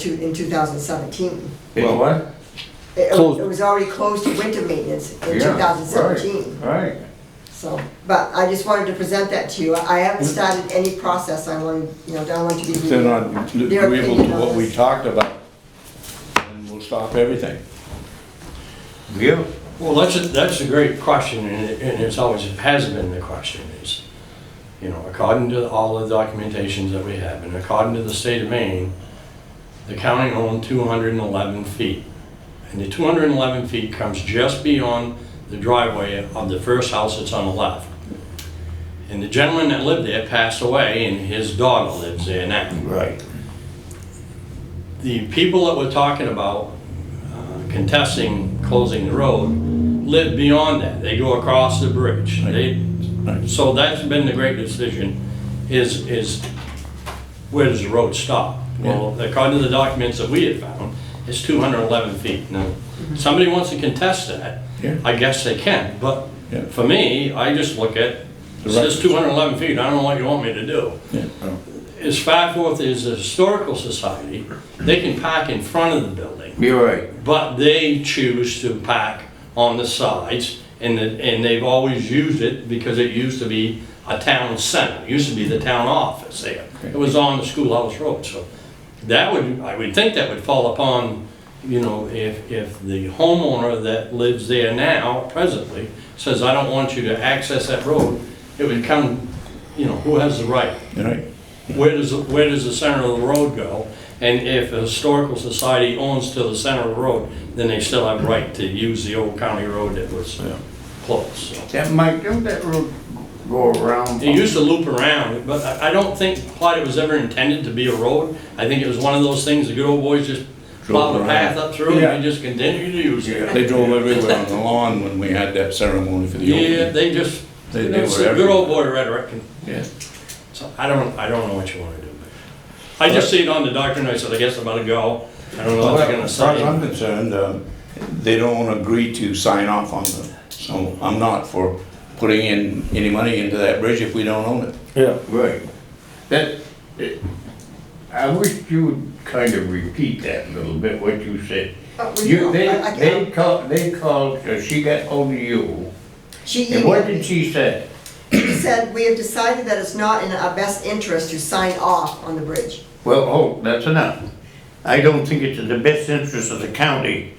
to- in 2017. Well, what? It- It Closed. it was already closed to winter maintenance in Yeah, 2017. Right. So, but I just wanted to present that to you. I haven't started any process. I wanted, you know, I want to be. Then on, Their agreeable to opinion on what we this. talked about, and we'll stop everything. Yeah. Well, that's, a- that's a great question, and it- and it's always, it has been the question is, you know, according to all the documentations that we have, and according to the state of Maine, the county owned 211 feet. And the 211 feet comes just beyond the driveway of the first house that's on the left. And the gentleman that lived there passed away, and his daughter lives there now Right. the people that we're talking about uh, contesting closing the road live beyond that. They go across the bridge. They, so that's been the great decision, is, is where does the road stop? Well, according to the documents that we had found, it's 211 feet. Now, somebody wants to contest that, Yeah. I guess they can, but Yeah. for me, I just look at, The it says records. 211 feet, I don't know what you want me to do Yeah, oh, as far forth as the Historical Society, they can park in front of the building, You're right. but they choose to park on the sides, and, the- and they've always used it because it used to be a town center, it used to be the town office there. It was on the schoolhouse road, so that would, I would think that would fall upon, you know, if, if the homeowner that lives there now presently says, I don't want you to access that road, it would come, you know, who has the right? you're right. where does, where does the center of the road go? And if a historical society owns to the center of the road, then they still have right to use the old county road that was closed. so. That Mike, don't that road go around? It used to loop around, but I I don't think Plight was ever intended to be a road. I think it was one of those things, the good old boys just plowed a around. path up through Yeah. and they just continued to use it. They drove everywhere on the lawn when we had that ceremony for the Yeah, opening. they just, They- they it's were the good old everywhere. boy rhetoric and Yeah. So I don't, I don't know what you want to do. I just see it on the doctrine, I said, I guess I'm about to go. I don't know what they're gonna As far as I'm say. concerned, um, they don't agree to sign off on them, so I'm not for putting in any money into that bridge if we don't own it. Yeah, Right. That, it- I wish you would kind of repeat that a little bit, what you said. Uh, we- You, they, I- I can- they called, they called, so she got hold of you, She and what did emailed, she say? she said, "We have decided that it's not in our best interest to sign off on the bridge." Well, oh, that's enough. I don't think it's in the best interest of the county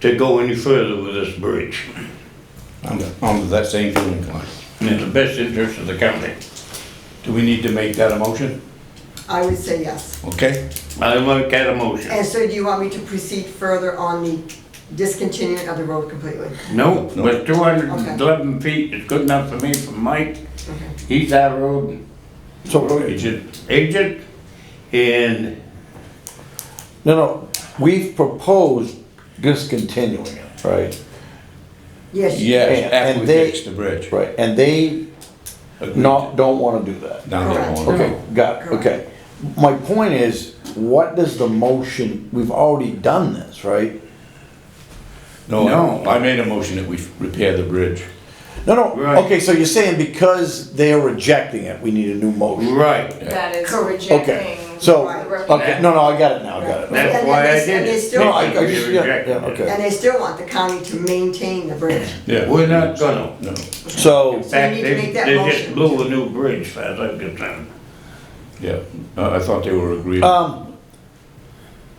to go any further with this bridge. I'm, I'm of that same feeling, Clyde. In the best interest of the county. Do we need to make that a motion? I would say yes. Okay? I like that emotion. And so do you want me to proceed further on the discontinuing of the road completely? No, but two hundred and eleven feet is good enough for me from Mike. Okay. He's our road so, no, Agent, agent, and no, we've proposed discontinuing it, right? Yes. you- yes, And- after and we they- fix the bridge. Right, and they Agreed. not, don't wanna do that. Down there. Correct. Okay. Okay, got it, okay. My point is, what does the motion, we've already done this, right? No, No. I made a motion that we repair the bridge. No, no, Right. okay, so you're saying because they're rejecting it, we need a new motion? right. That is Correct. Okay, rejecting. so, the recommendation. okay, no, no, I got it now, I got it. That's And why I they- did and they it. still- No, I, I just, They yeah, rejected yeah, it. And okay. they still want the county to maintain the bridge. Yeah. We're not gonna. In No, So, Oh, So you fact, need to they, make that they just motion. blew a new bridge, as far as I'm concerned. yeah, Uh, I thought they were agreed. Um,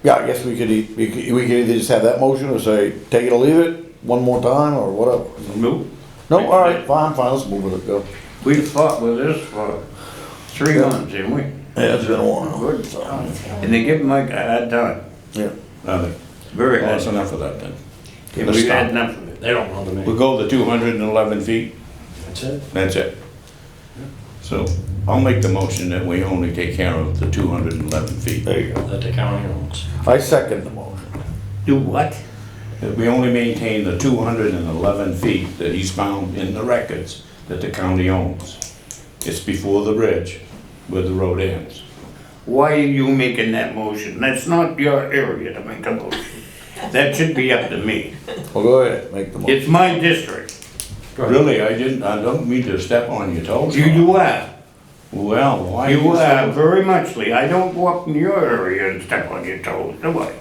yeah, I guess we could, e- we could, we could either just have that motion or say, take it or leave it, one more time or whatever. Nope. No, all right, fine, fine, let's move with it, go. We fought with this for three months, didn't we? Yeah, it's been a while. Good. And they give Mike a hard time, Yeah, Well, very hard. that's enough of that then. And let's we've had stop. enough of it. They don't want to make. We'll go the two hundred and eleven feet, That's it. that's it. So I'll make the motion that we only take care of the two hundred and eleven feet. there you go. That the county owns. I second the motion. Do what? That we only maintain the two hundred and eleven feet that he's found in the records that the county owns. It's before the bridge where the road ends. Why are you making that motion? That's not your area to make a motion. That should be up to me. Well, go ahead, make the motion. It's my district. Really, I didn't, I don't mean to step on your toes. You, you are. Well, why? You, uh, very muchly, I don't go up in your area and step on your toes, do I?